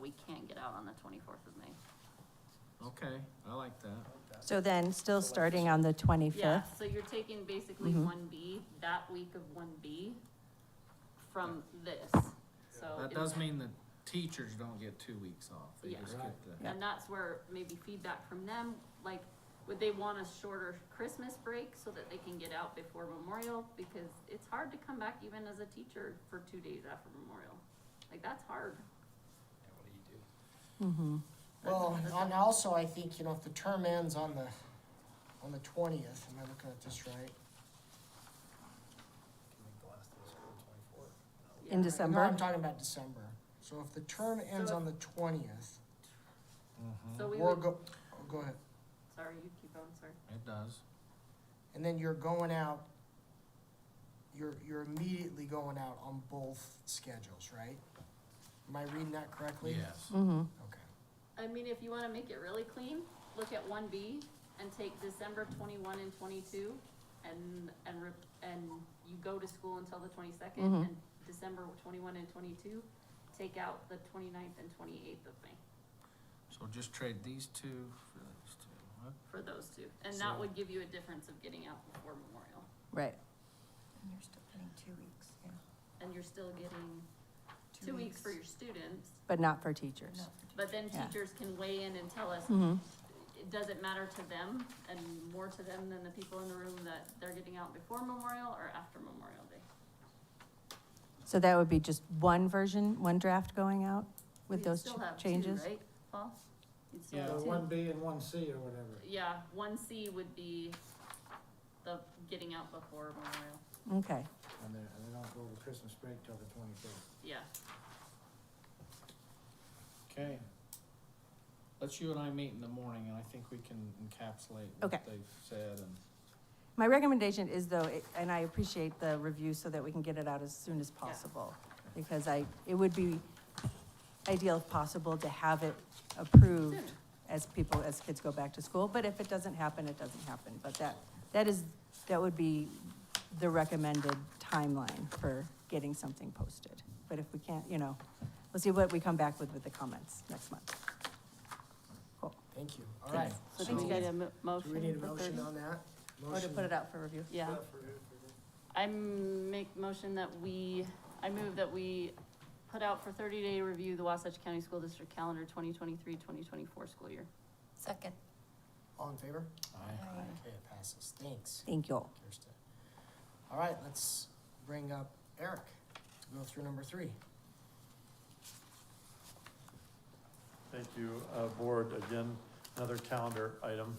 we can't get out on the twenty-fourth of May. Okay, I like that. So then, still starting on the 25th? Yeah, so you're taking basically Mm-hmm. one B, that week of one B from this, so. That it- does mean the teachers don't get two weeks off. They Yeah. just get the, And that's where maybe feedback from them, like, would they want a shorter Christmas break so that they can get out before Memorial? Because it's hard to come back even as a teacher for two days after Memorial. Like, that's hard. Mm-hmm, Well, and also I think, you know, if the term ends on the, on the twentieth, am I looking at this right? Yeah. In No, I'm December? talking about December. So if the term ends So on the twentieth, Mm-hmm. So we we'll would, go, oh, go ahead. sorry, you keep going, sorry. it does. And then you're going out, you're, you're immediately going out on both schedules, right? Am I reading that correctly? Yes. Mm-hmm. Okay. I mean, if you wanna make it really clean, look at one B and take December twenty-one and twenty-two and, and, rep- and you go to school until the twenty-second Mhm. and December twenty-one and twenty-two, take out the 29th and twenty-eighth of May So just trade these two for these two. What? for those two. And that So- would give you a difference of getting out before Memorial. Right. And you're still getting two weeks, yeah. And you're still getting two weeks for your students, But not for teachers? No. but then Yeah. teachers can weigh in and tell us, Mm-hmm. it doesn't matter to them and more to them than the people in the room that they're getting out before Memorial or after Memorial Day. So that would be just one version, one draft going out with We'd those still ch- have two, changes? right, Paul? You'd still Yeah, have two. one B and one C or whatever. Yeah, one C would be the getting out before Memorial, Okay, And they, and they don't go over Christmas break till the twenty-fifth. yeah. Okay. Let's you and I meet in the morning and I think we can encapsulate Okay. what they've said and. my recommendation is though, it- and I appreciate the review so that we can get it out as soon as possible. Because I, it would be ideal if possible to have it approved Sooner. as people, as kids go back to school. But if it doesn't happen, it doesn't happen. But that, that is, that would be the recommended timeline for getting something posted. But if we can't, you know, we'll see what we come back with with the comments next month. Cool. Thank you. All right. So do we So- need a mo- Do we motion need a for motion thirty? on that? Or to put it out for review. Yeah, I m- make motion that we, I move that we put out for thirty day review the Wasatch County School District calendar 2023-2024 school year. Second. All in favor? I Aye. Okay, it passes. Thanks, Thank you all. Kirsten. All right, let's bring up Eric to go through number three. Thank you, uh, board. Again, another calendar item,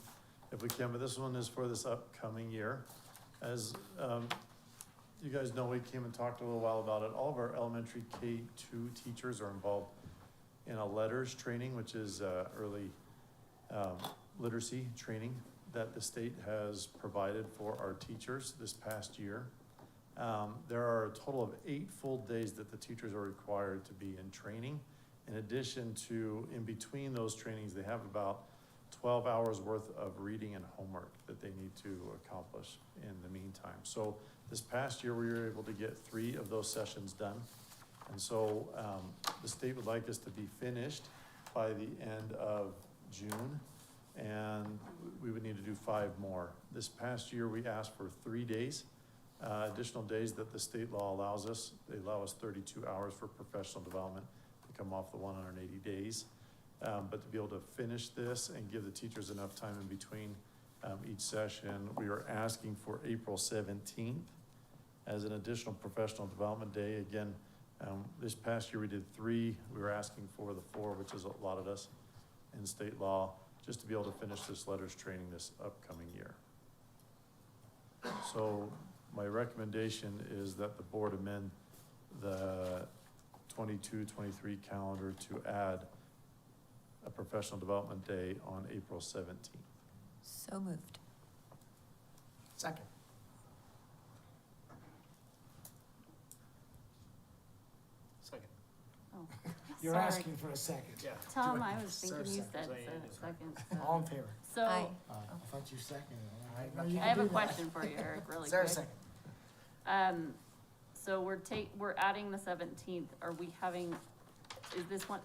if we can, but this one is for this upcoming year. As um, you guys know, we came and talked a little while about it. All of our elementary K two teachers are involved in a letters training, which is uh, early um, literacy training that the state has provided for our teachers this past year. Um, There are a total of eight full days that the teachers are required to be in training. In addition to, in between those trainings, they have about twelve hours worth of reading and homework that they need to accomplish in the meantime. So this past year, we were able to get three of those sessions done. And so, um, the state would like us to be finished by the end of June. And we would need to do five more. This past year, we asked for three days, uh, additional days that the state law allows us. They allow us thirty-two hours for professional development to come off the one hundred and eighty days. Um, but to be able to finish this and give the teachers enough time in between, um, each session, we are asking for April seventeenth as an additional professional development day. Again, um, this past year we did three, we were asking for the four, which is allotted us in state law, just to be able to finish this letters training this upcoming year. So my recommendation is that the board amend the 22-23 calendar to add a professional development day on April seventeenth. So moved. Second. Second. You're Sorry. asking for a second. Yeah. Tom, I was So thinking you said second. So it se- is right. second, All in so. favor? So, Aye. I Uh, I thought you seconded it. I have a do that. question for you, Eric, really Is there a quick. second? Um, so we're take, we're adding the seventeenth, are we having, is this one,